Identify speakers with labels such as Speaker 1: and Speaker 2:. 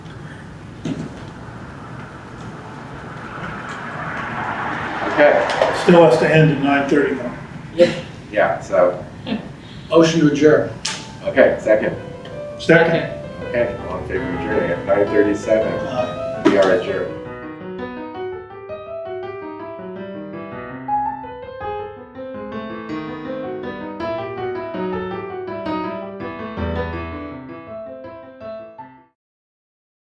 Speaker 1: Okay,
Speaker 2: Still has to end at nine thirty though.
Speaker 1: yeah, so,
Speaker 3: Motion to adjourn.
Speaker 1: okay, second.
Speaker 2: Second? uh,
Speaker 1: Okay, all in favor of adjourning at nine thirty-seven, we are adjourned.